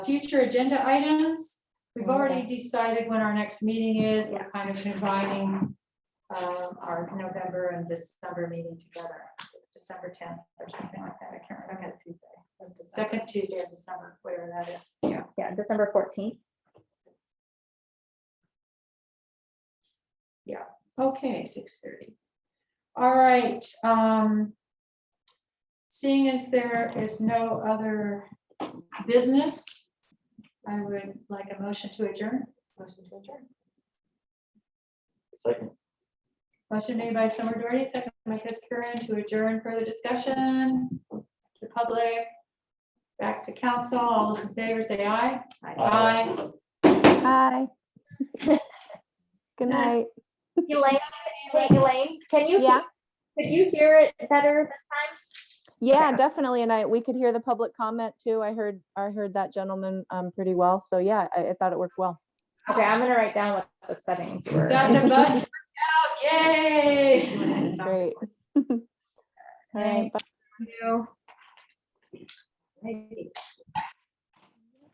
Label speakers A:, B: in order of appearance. A: Future agenda items, we've already decided when our next meeting is, we're kind of combining um, our November and December meeting together. It's December tenth or something like that, I can't remember. Tuesday. Second Tuesday of December, whatever that is. Yeah.
B: Yeah, December fourteenth.
A: Okay, six thirty. All right, um. Seeing as there is no other business, I would like a motion to adjourn. Motion to adjourn.
C: Second.
A: Motion made by Summer Doherty, second by Chris Curran to adjourn further discussion to public. Back to council. All those in favor say aye.
C: Aye.
D: Hi. Good
A: Good night.
D: night.
B: Elaine, hey, Elaine, can you,
D: Yeah.
B: could you hear it better this
D: Yeah, definitely. And I, we could hear the public comment too. I heard, I heard that gentleman um pretty well. So yeah, I, I thought it worked well.
B: time? Okay, I'm gonna write down what the settings were.
A: Got the buttons out, yay.
D: Great. All
A: Thank
D: right, bye.
A: you. Hey.